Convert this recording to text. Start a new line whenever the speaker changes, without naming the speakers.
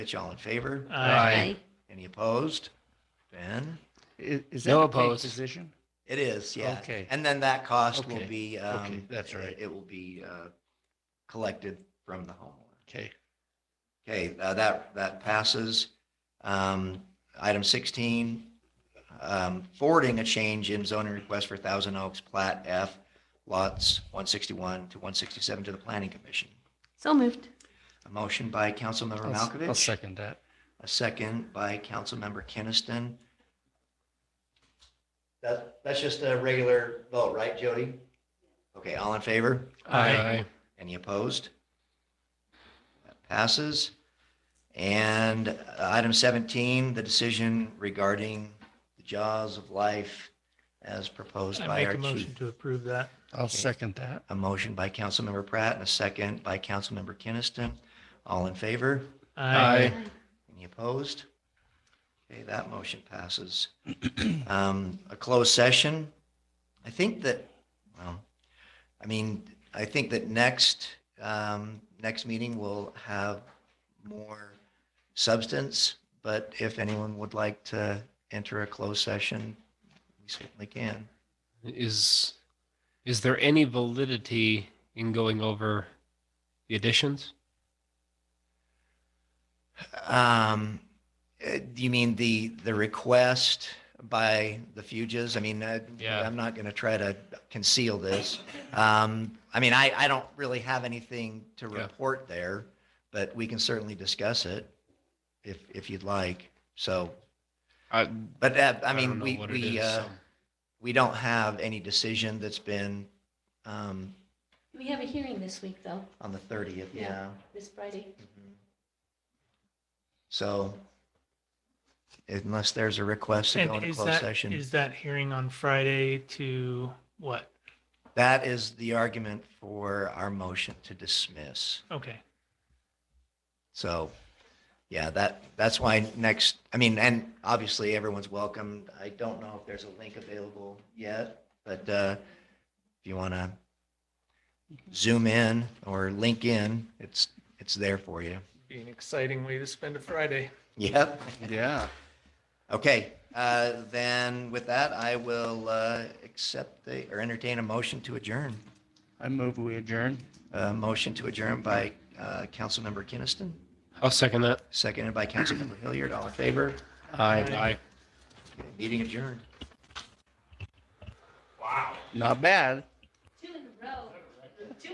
Mitch, all in favor?
Uh.
Aye.
Any opposed? Ben?
Is, is that
No
a paid
opposed.
position?
It is, yeah.
Okay.
And then that cost will
Okay.
be.
Okay,
um,
that's right.
It will be uh, collected from the homeowner.
Okay.
Okay, uh, that, that passes. Um, Item 16, um, forwarding a change in zoning request for Thousand Oaks Plat F, lots 161 to 167 to the Planning Commission.
So moved.
A motion by Councilmember Malkovich.
I'll second that.
A second by Councilmember Keniston. That, that's just a regular vote, right, Jody? Okay, all in favor?
Aye.
Any opposed? That Passes. And uh, item 17, the decision regarding the jaws of life as proposed
I
by our
make a
chief.
motion to approve that.
I'll second that.
A motion by Councilmember Pratt and a second by Councilmember Keniston. All in favor?
Aye.
Any opposed? Okay, that motion passes. Um, A closed session, I think that, well, I mean, I think that next, um, next meeting will have more substance, but if anyone would like to enter a closed session, we certainly can.
Is is there any validity in going over the additions?
Um, uh, do you mean the, the request by the fuges? I mean, uh,
Yeah.
I'm not going to try to conceal this. Um, I mean, I, I don't really have anything to
Yeah.
report there, but we can certainly discuss it if, if you'd like. So,
I,
but uh, I
don't
mean,
know
we,
what it
we,
is,
uh,
so.
we don't have any decision that's been, um,
We have a hearing this week, though,
on the 30th.
Yeah.
Yeah.
this Friday.
Mhm. So unless there's a request to go
And
into
is
closed
that,
session,
is that hearing on Friday to what?
that is the argument for our motion to dismiss.
Okay.
So, yeah, that, that's why next, I mean, and obviously everyone's welcome. I don't know if there's a link available yet, but uh, if you want to zoom in or link in, it's, it's there for you.
Be an exciting way to spend a Friday.
Yep.
Yeah.
Okay, uh, then with that, I will uh, accept the, or entertain a motion to adjourn.
I move we adjourn.
A motion to adjourn by uh, Councilmember Kinnison,
I'll second that.
seconded by Councilmember Hilliard. All in favor?
Aye.
Aye.
Meeting adjourned.
Not bad.